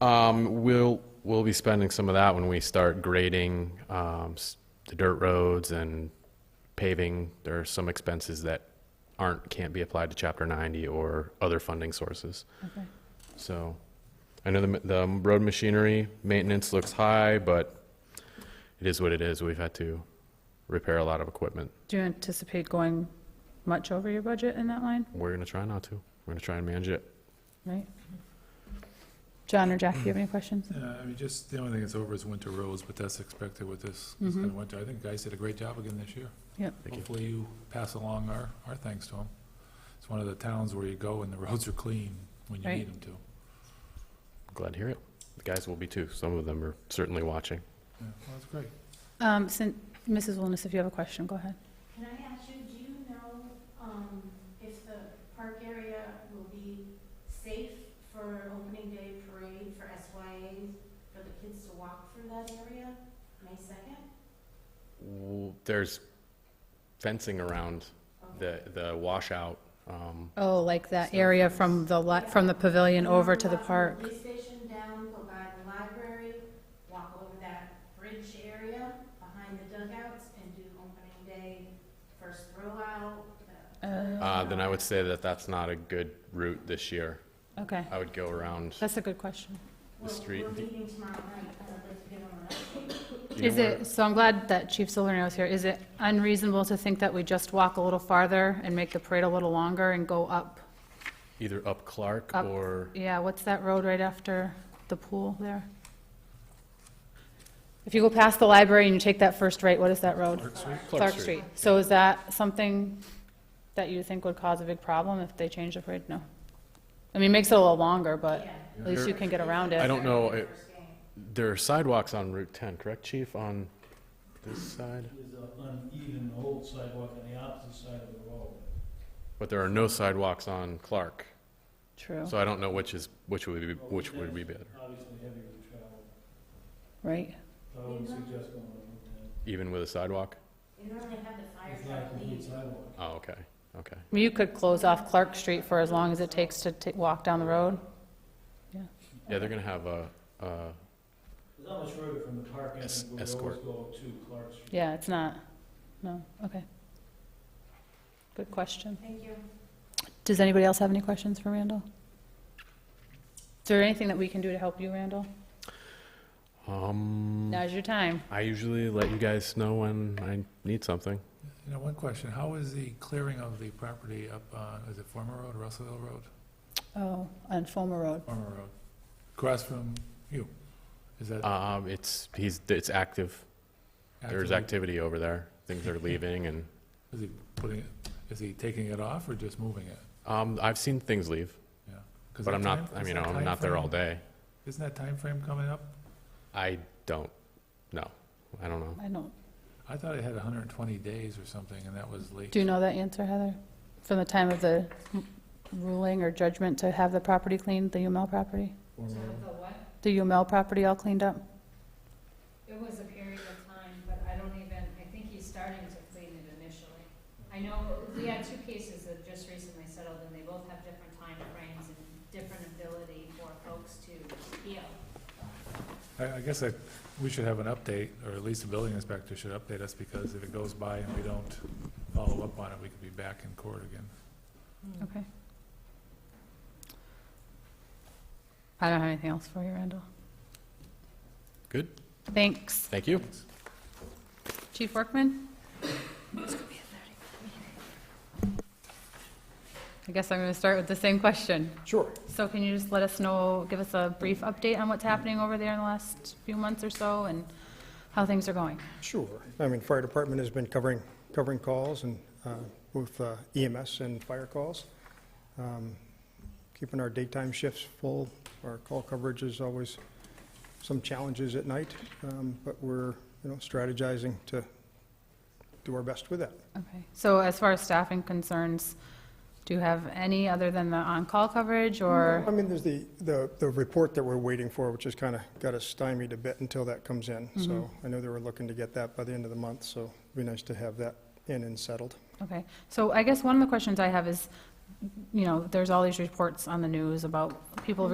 Um, we'll, we'll be spending some of that when we start grading, um, s- the dirt roads and paving. There are some expenses that aren't, can't be applied to chapter ninety or other funding sources. Okay. So, I know the, ma- the road machinery maintenance looks high, but it is what it is. We've had to repair a lot of equipment. Do you anticipate going much over your budget in that line, We're gonna try not to. We're gonna try and manage it. right? John or Jack, do you have any questions? Yeah, Uh, I mean, just, the only thing that's over is winter roads, but that's expected with this, Mhm. this kind of winter. I think the guys did a great job again this year. Yep. Thank you. Hopefully you pass along our, our thanks to them. It's one of the towns where you go and the roads are clean when you Right. need them to. Glad to hear it. The guys will be too. Some of them are certainly watching. Yeah, well, that's great. Um, sin Mrs. Wilness, if you have a question, go ahead. Can I ask you, do you know um, if the park area will be safe for opening day parade for SYAs, for the kids to walk through that area, May 2nd? W- There's fencing around the, the washout. um, Oh, like that area from the, li- from the pavilion over to the Walk park? from the Police station down, go by the library, walk over that bridge area behind the dugouts and do opening day, first throw out. the- Uh, uh, Then I would say that that's not a good route this year. Okay, I would go around. that's a good question. the street- We're, we're meeting tomorrow night, I'd like to get on that. Do you know Is where- it, so I'm glad that Chief Silvernail is here. Is it unreasonable to think that we just walk a little farther and make the parade a little longer and go up? Either up Clark Up. or, Yeah, what's that road right after the pool there? If you go past the library and you take that first right, what is that road? Park Street? Clark Street. So is that something that you think would cause a big problem if they change the parade? No. I mean, it makes it a little longer, but at least you can get around I it. don't know, it- First game. there are sidewalks on Route 10, correct, Chief, on this side? There's an uneven old sidewalk on the opposite side of the road. But there are no sidewalks on Clark. True, So I don't know which is, which would be, which would be better, Obviously heavier to travel. right? So I would suggest going over there. even with a sidewalk? You normally have the fire It's not a truck complete leave. sidewalk. Oh, okay, okay. I mean, You could close off Clark Street for as long as it takes to ta- walk down the road. Yeah, they're gonna have a, uh, It's not much further from the park Es- entrance where we always escort. go to Clark Street. Yeah, it's not, no, okay. Good question. Thank you. Does anybody else have any questions for Randall? Is there anything that we can do to help you, Randall? um, Now's your time. I usually let you guys know when I need something. You know, one question, how is the clearing of the property up on, is it former road, Russellville Road? Oh, on Fulmer Road. Former road, across from you, is that? Um, it's, he's, it's active. There's actively- activity over there. Things are leaving and, Is he putting, it- is he taking it off or just moving it? um, I've seen things leave, 'Cause but that I'm time- not, I mean, isn't that I'm not there all timeframe- day. Isn't that time frame coming up? I don't, no, I don't know. I don't, I thought it had 120 days or something, and that was late. do you know that answer, Heather? From the time of the m- ruling or judgment to have the property cleaned, the UML property? Former road. The what? The UML property all cleaned up? It was a period of time, but I don't even, I think he's starting to clean it initially. I know, we had two cases that just recently settled, and they both have different time frames and different ability for folks to heal. I, I guess I, we should have an update, or at least the building inspector should update us, because if it goes by and we don't follow up on it, we could be back in court again. Okay. I don't have anything else for you, Randall. Good, Thanks. thank you. Chief Workman? I guess I'm going to start with the same question. Sure. So can you just let us know, give us a brief update on what's happening over there in the last few months or so and how things are going? Sure. I mean, fire department has been covering, covering calls and uh, both uh, EMS and fire calls. Um, Keeping our daytime shifts full. Our call coverage is always some challenges at night, um, but we're, you know, strategizing to do our best with that. Okay, so as far as staffing concerns, do you have any other than the on-call coverage I or? mean, there's the, the, the report that we're waiting for, which has kind of got us stymied a bit until that comes in. So I know they were looking to get that by the end of the month, so it'd be nice to have that in and settled. Okay, so I guess one of the questions I have is, you know, there's all these reports on the news about people